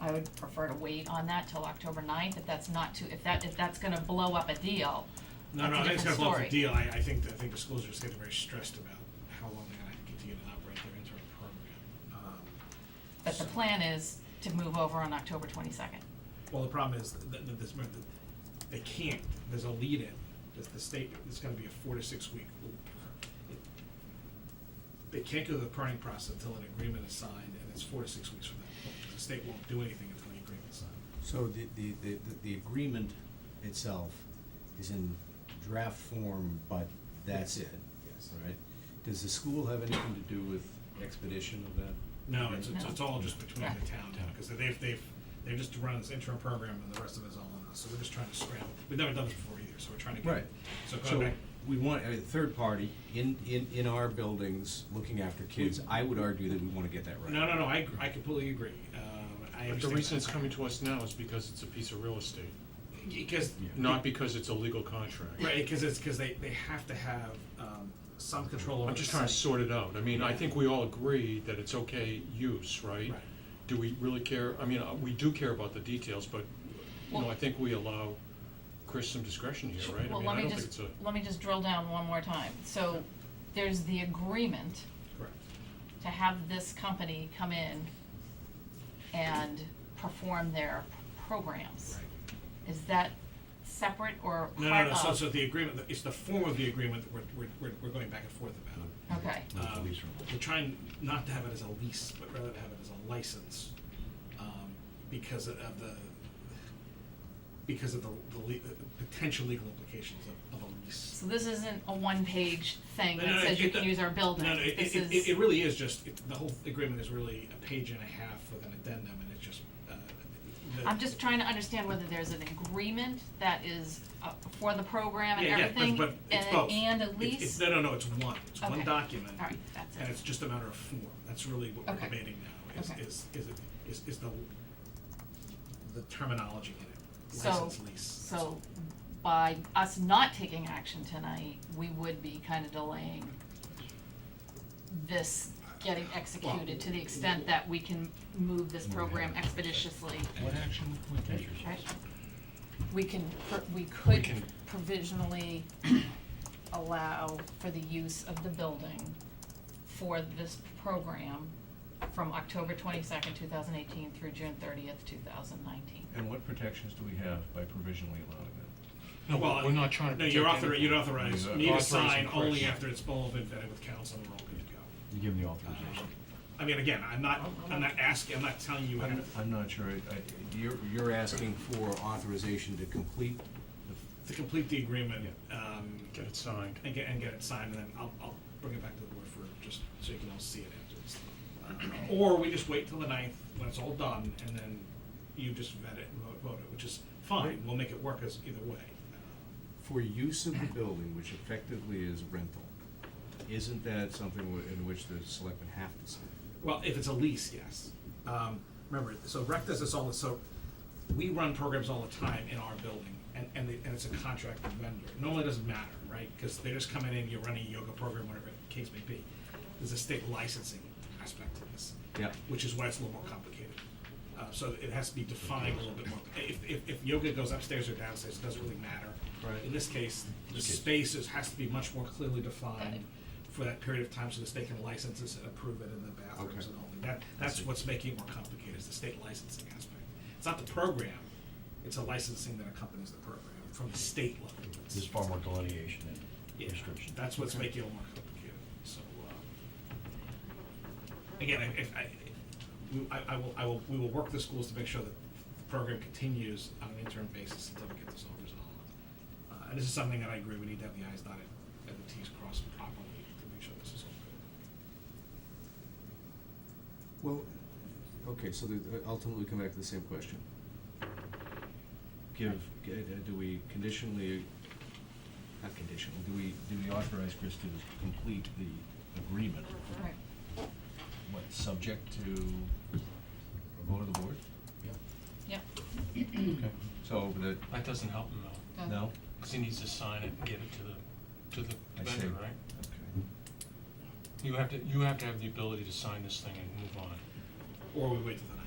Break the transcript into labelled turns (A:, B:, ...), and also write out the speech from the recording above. A: I would prefer to wait on that till October ninth, if that's not too, if that, if that's gonna blow up a deal.
B: No, no, I
A: That's a
B: think it's gonna
A: different
B: blow up the
A: story.
B: deal, I, I think, that- I think the schools are just getting very stressed about how long they're gonna continue to operate their interim program. Um,
A: But the plan is to move over on October twenty-second.
B: Well, the problem is that, that this, that they can't, there's a lead-in, the, the state, it's gonna be a four to six week. loop. They can't go to the permitting process until an agreement is signed, and it's four to six weeks from that point, the state won't do anything until the agreement's signed.
C: So the, the, the, the agreement itself is in draft form, but that's it?
B: Yes.
C: All right. Does the school have anything to do with expedition of that?
B: No, it's, it's,
A: No.
B: it's all just between the town, because they've, they've, they're just running this interim program and the rest of it's all on us, so we're just trying to scramble. We've never done this before either, so we're trying to get.
C: Right.
B: So going
C: So
B: back,
C: we want a third party in, in, in our buildings, looking after kids. I would argue that we wanna get that right.
B: no, no, no, I, I completely agree, um, I
D: But the
B: understand-
D: reason it's coming to us now is because it's a piece of real estate,
B: Because.
D: not because it's a legal contract.
B: Right, because it's, because they, they have to have, um, some control over
D: I'm
B: the
D: just trying to
B: site.
D: sort it out. I mean, I think we all agree that it's okay use, right?
B: Right.
D: Do we really care? I mean, uh, we do care about the details, but, you know, I think we allow Chris some discretion here, right? I
A: Well,
D: mean,
A: let
D: I
A: me
D: don't think it's
A: just,
D: a,
A: let me just drill down one more time. So there's the agreement
B: Correct.
A: to have this company come in and perform their p- programs.
B: Right.
A: Is that separate or
B: No,
A: part
B: no, no, so,
A: of-
B: so the agreement, it's the form of the agreement that we're, we're, we're, we're going back and forth about.
D: Mm-hmm.
A: Okay,
C: Like the
B: Um,
C: lease renewal.
B: We're trying not to have it as a lease, but rather to have it as a license, um, because of the, because of the, the le- the potential legal implications of, of a lease.
A: so this isn't a one-page thing
B: No, no,
A: that says you
B: it-
A: can use our building.
B: No, no, it,
A: This
B: it,
A: is-
B: it, it really is just, it- the whole agreement is really a page and a half with an addendum, and it's just, uh, the.
A: I'm just trying to understand whether there's an agreement that is uh, for the program and
B: Yeah, yeah,
A: everything,
B: but- but it's both.
A: and, and a
B: It's-
A: lease?
B: It's, no, no, no, it's one, it's one
A: Okay.
B: document.
A: All right, that's it.
B: And it's just a matter of form, that's really what we're
A: Okay.
B: debating now, is,
A: Okay.
B: is, is, it- is, is the, the terminology in it,
A: So-
B: license, lease.
A: So by us not taking action tonight, we would be kind of delaying this getting executed to the extent that we can move this program expeditiously,
E: What action would we take?
A: right? We can, per- we
D: We
A: could
D: can-
A: provisionally allow for the use of the building for this program from October twenty-second, two thousand eighteen through June thirtieth, two thousand nineteen.
E: And what protections do we have by provisionally allowing that?
D: no,
B: Well,
D: we're not trying
B: No,
D: to
B: you're
D: protect
B: author,
D: anyone.
B: you'd authorize
E: Yeah.
B: me to
D: Authorizing
B: sign only
D: Chris.
B: after it's all been vetted with council and we're all good to go.
E: You give them the
B: Um, I mean, again, I'm not,
A: Oh,
B: I'm not asking, I'm not telling you how to,
E: I'm, I'm not sure, I, I,
C: You're, you're asking for authorization to complete
B: to complete the agreement, um,
D: Get it signed.
B: and get, and get it signed, and then I'll, I'll bring it back to the board for, just so you can all see it after this. Uh, Or we just wait till the ninth, when it's all done, and then you just vet it and vote, vote it, which is fine, we'll make it work as, either way.
C: for use of the building, which effectively is rental. Isn't that something wh- in which the selectmen have to sign?
B: Well, if it's a lease, yes. Um, remember, so rec does this all, the- so we run programs all the time in our building, and, and, they- and it's a contracted vendor. Normally it doesn't matter, right, because they're just coming in, you're running a yoga program, whatever the case may be. There's a state licensing aspect to this.
C: Yep.
B: Which is why it's a little more complicated. Uh, so it has to be defined a little bit more. If, if, if yoga goes upstairs or downstairs, it doesn't really matter.
C: Right.
B: In this case, the spaces has to be much more clearly defined for that period of time so the state can license this and approve it in the bathrooms
C: Okay.
B: and all that. That, that's what's making it more complicated, is the state licensing aspect. It's not the program, it's a licensing that accompanies the program from the state level. It's-
E: There's far more delineation
B: yeah,
E: and restriction.
B: That's what's making it more complicated, so, um, again, if- if, I, we- I, I will, I will, we will work the schools to make sure that the program continues on an interim basis until we get this all resolved. Uh, and this is something that I agree, we need to have the i's dotted and the t's crossed properly to make sure this is all good.
C: Well, okay, so the- uh, ultimately come back to the same question. Give, g- uh, do we conditionally, not conditional,
E: Do we, do we authorize Chris to complete the agreement,
A: Right.
E: what, subject to a vote of the board?
A: Yep.
E: Okay. So, that,
D: That doesn't help him though,
A: Done.
E: no?
D: because he needs to sign it and get it to the, to
E: I
D: the vendor,
E: see.
D: right?
E: Okay.
D: You have to, you have to have the ability to sign this thing and move on.
B: Or we wait till the